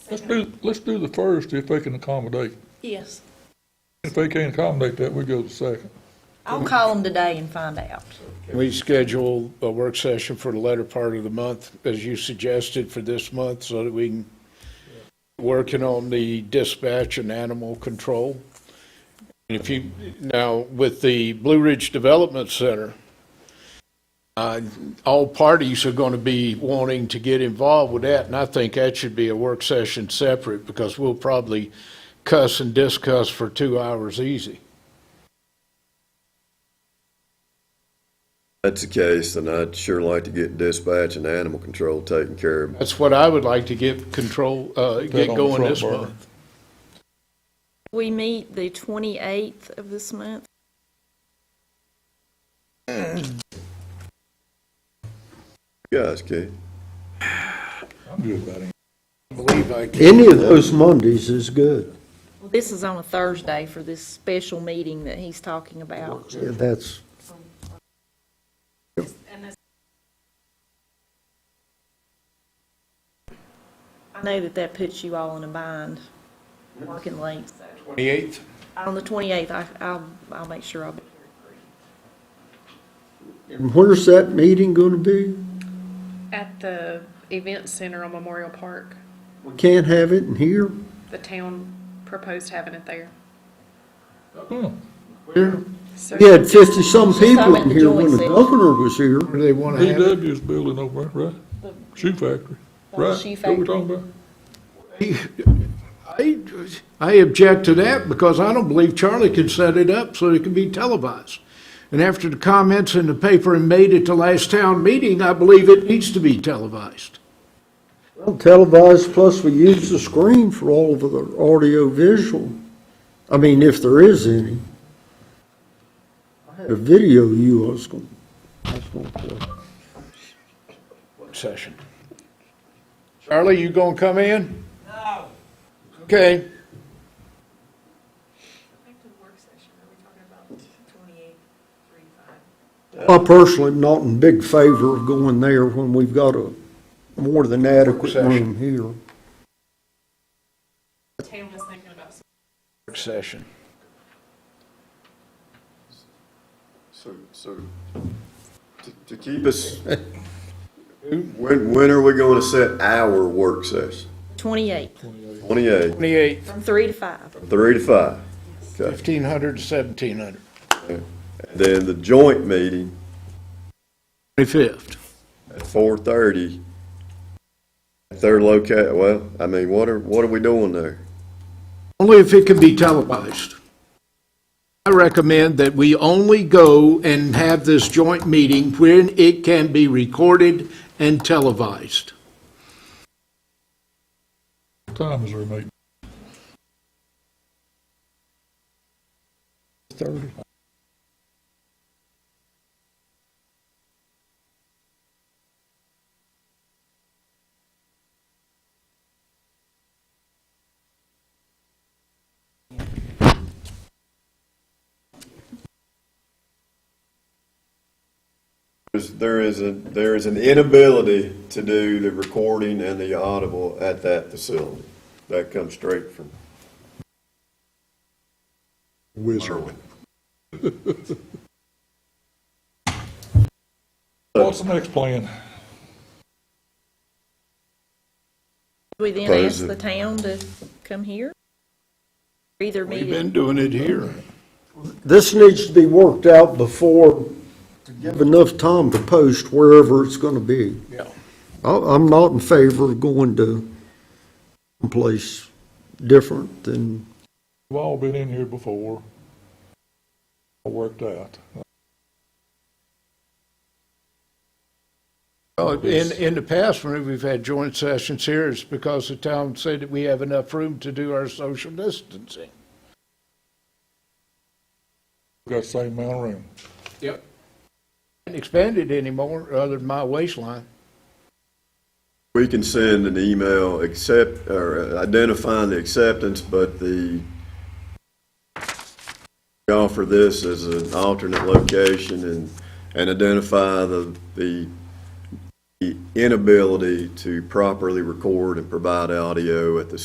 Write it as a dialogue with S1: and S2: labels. S1: Let's do, let's do the first if they can accommodate.
S2: Yes.
S1: If they can't accommodate that, we go to the second.
S2: I'll call them today and find out.
S3: We schedule a work session for the latter part of the month, as you suggested, for this month, so that we can, working on the dispatch and animal control. And if you, now, with the Blue Ridge Development Center, uh, all parties are going to be wanting to get involved with that, and I think that should be a work session separate, because we'll probably cuss and discuss for two hours easy.
S4: That's the case, then I'd sure like to get dispatch and animal control taken care of.
S3: That's what I would like to get control, uh,
S1: Put it
S3: get
S1: on the
S3: going
S1: front
S3: this
S1: burner.
S3: month.
S5: We meet the 28th of this month.
S4: You guys can.
S1: I'm good about it.
S3: believe I can.
S6: Any of those Mondays is good.
S5: This is on a Thursday for this special meeting that he's talking about.
S6: Yeah, That's,
S5: I know that that puts you all in a bind, working late. so.
S3: Twenty-eighth?
S5: On the 28th, I, I'll, I'll make sure I'll be
S6: and where's that meeting gonna be?
S7: At the event center on Memorial Park,
S6: We can't have it in here?
S7: the town proposed having it there. So
S6: We had fifty-some people
S5: at
S6: in
S5: the
S6: here when
S5: joint
S6: the
S5: session.
S6: governor was here.
S3: Where do they want to have it?
S1: DW's building over there, right? Shoe factory, right?
S5: shoe
S1: What we talking about?
S3: I, I object to that because I don't believe Charlie can set it up so it can be televised. And after the comments in the paper and made at the last town meeting, I believe it needs to be televised.
S6: Well, Televised, plus we use the screen for all of the audio visual. I mean, if there is any. I had a video you, I was gonna, I was gonna play.
S3: Session. Charlie, you gonna come in? No. Okay.
S6: I personally am not in big favor of going there when we've got a more than adequate
S3: Session.
S6: room here.
S7: the town was thinking about
S3: Work Session.
S4: So, so, to, to keep us, when, when are we gonna set our work session?
S5: 28th,
S4: Twenty-eight,
S3: Twenty-eighth,
S5: from 3 to 5.
S4: three to five. Okay,
S3: fifteen hundred to seventeen hundred.
S4: then the joint meeting
S3: Twenty-fifth.
S4: at four thirty. They're located, well, I mean, what are, what are we doing there?
S3: Only if it can be televised. I recommend that we only go and have this joint meeting when it can be recorded and televised.
S1: What time is their meeting? Thirty.
S4: There's, there is a, there is an inability to do the recording and the audible at that facility. That comes straight from Irwin.
S1: What's the next plan?
S5: We then
S4: Close
S5: ask
S4: it.
S5: the town to come here. Either meet at
S3: doing it here.
S6: This needs to be worked out before, to give enough time to post wherever it's gonna be.
S3: Yeah.
S6: I, I'm not in favor of going to someplace different than,
S1: We've all been in here before. All Worked out.
S3: In, in the past, when we've had joint sessions here, it's because the town said that we have enough room to do our social distancing.
S1: We've got the same amount of room.
S3: Yep. Haven't expanded anymore, other than my waistline.
S4: We can send an email accept, or uh, identifying the acceptance, but the, we offer this as an alternate location and, and identify the, the the inability to properly record and provide audio at the